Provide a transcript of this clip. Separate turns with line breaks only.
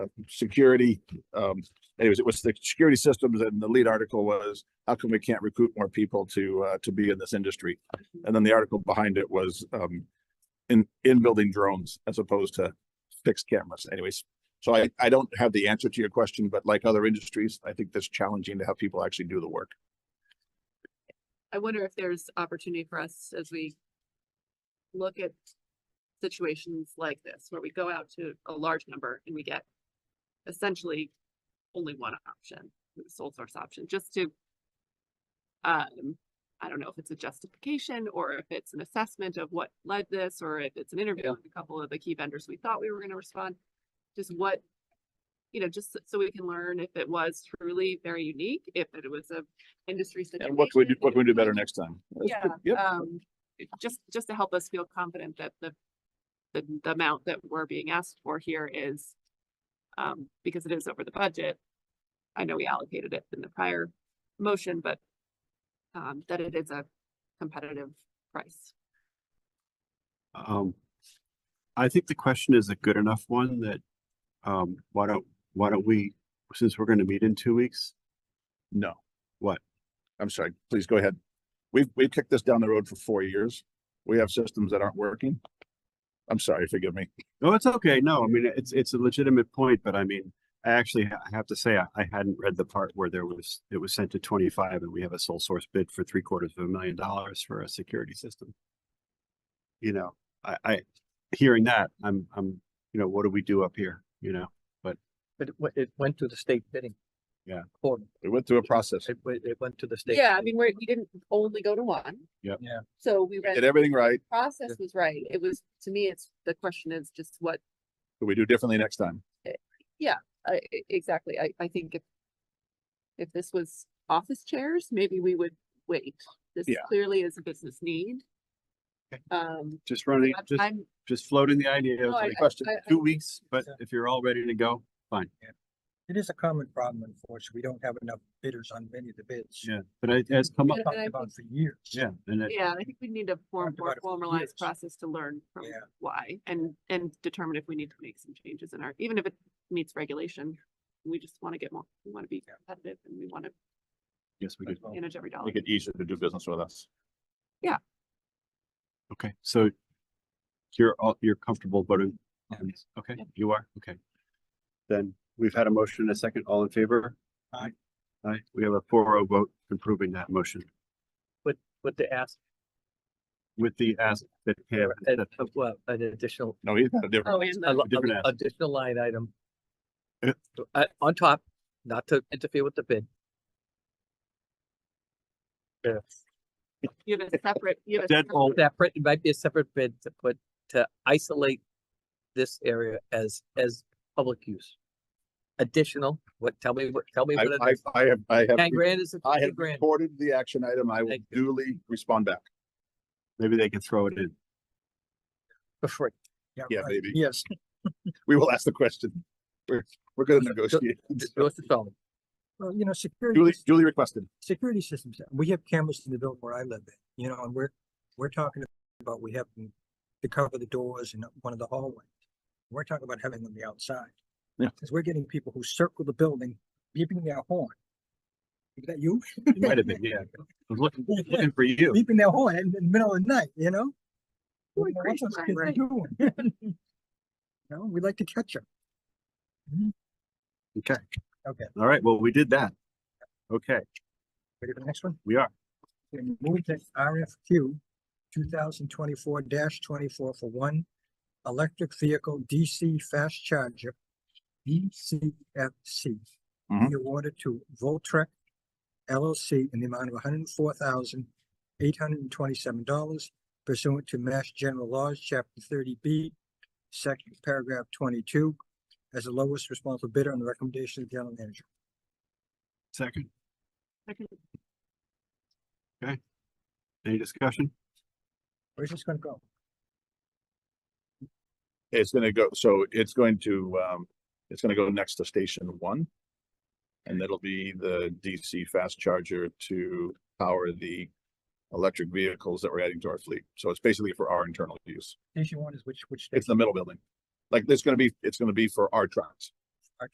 security. Um, anyways, it was the security systems and the lead article was, how come we can't recruit more people to, uh, to be in this industry? And then the article behind it was, um, in, in building drones as opposed to fixed cameras anyways. So I, I don't have the answer to your question, but like other industries, I think that's challenging to have people actually do the work.
I wonder if there's opportunity for us as we look at situations like this, where we go out to a large number and we get essentially only one option, the sole source option, just to um, I don't know if it's a justification or if it's an assessment of what led this, or if it's an interview with a couple of the key vendors we thought we were gonna respond. Just what, you know, just so- so we can learn if it was truly very unique, if it was a industry situation.
And what can we do,
if
what
it
can we do
was-
better next time? That's
yeah,
good. Yep.
um, it- just, just to help us feel confident that the, the, the amount that we're being asked for here is, um, because it is over the budget. I know we allocated it in the prior motion, but, um, that it is a competitive price.
Um, I think the question is a good enough one that, um, why don't, why don't we, since we're gonna meet in two weeks?
No.
What?
I'm sorry, please go ahead. We've, we've kicked this down the road for four years. We have systems that aren't working. I'm sorry, forgive me.
No, it's okay. No, I mean, it's, it's a legitimate point, but I mean, I actually ha- I have to say, I, I hadn't read the part where there was, it was sent to twenty-five and we have a sole source bid for three quarters of a million dollars for a security system. You know, I, I, hearing that, I'm, I'm, you know, what do we do up here, you know?
But it, went- it went to the state bidding.
Yeah.
Board.
We went through a process.
It, went- it went to the state.
Yeah, I mean, we're, we didn't only go to one.
Yep.
Yeah.
So we
Did
read,
everything right.
process was right. It was, to me, it's, the question is just what
Could we do differently next time?
I, I- exactly, I, I think if. If this was office chairs, maybe we would wait. This
Yeah.
clearly is a business need.
Okay.
Um,
Just running,
I'm-
just,
I'm,
just floating the idea of
No, I-
like,
I- I- I-
two weeks, but
Yeah.
if you're all ready to go, fine.
It is a common problem, unfortunately. We don't have enough bidders on many of the bids.
Yeah, but it has come up,
Yeah,
Talked
and I
about for years.
yeah, and it,
yeah, I think we need a more,
Talked
more
about it for
formalized
years.
process to learn from
Yeah.
why and, and determine if we need to make some changes in our, even if it meets regulation. We just want to get more, we want to be
Yeah.
competitive and we want to
yes, we
as
could.
Oh.
well.
manage every dollar.
Make it easier to do business with us.
Okay, so you're all, you're comfortable voting on this? Okay,
Yeah.
you are? Okay. Then we've had a motion and a second. All in favor?
Aye.
Aye. We have a four oh vote approving that motion
But they asked,
with the ask that Pam,
for an-
that
uh, well, an additional,
No, he's got a different,
Oh, and
a
the,
lo-
different
a-
ask.
additional line item.
Yeah.
to- uh, on top, not to interfere with the bid.
you have a separate, you have a.
Dead
separate-
all-
That print it might be a separate bid to put, to isolate this area as, as public use. Additional, what, tell me, what? tell me
I,
what it
I,
is.
I have, I have,
Ten grand is
I
ten
have
grand.
reported the action item. I will
Thank you.
duly respond back.
maybe they can throw it in.
For free.
Yeah, maybe.
Yes.
We will ask the question. We're, we're gonna negotiate.
Well, you know, security,
Duly, duly requested.
security systems, we have cameras in the building where I live in, you know, and we're, we're talking about, we have them to cover the doors and one of the hallways. We're talking about having them on the outside.
Yeah.
Cause we're getting people who circle the building, beeping their horn. Is that you?
It might have been, yeah. I was looking, looking for you.
Beeping their horn in the middle of the night, you know?
Boy,
You know, what
gracious,
those kids are
Irene.
doing. You know, we like to catch them.
Okay.
Okay.
All right, well, we did that. Okay,
Ready for the next one?
we are.
and move to RFQ two thousand twenty-four twenty-four for one electric vehicle DC fast charger, DCFC.
Mhm.
Be awarded to Voltrek LLC in the amount of hundred and four thousand eight hundred and twenty-seven dollars pursuant to Mass General Laws, Chapter thirty B, Section Paragraph twenty-two, as the lowest responsible bidder on the recommendation of the general manager.
Second,
Second.
any discussion?
Where's this gonna go?
It's gonna go, so it's going to, um, it's gonna go next to station one. And that'll be the DC fast charger to power the electric vehicles that we're adding to our fleet. So it's basically for our internal use.
Station one is which, which?
It's
station?
the middle building. Like, it's gonna be, it's gonna be for our trucks.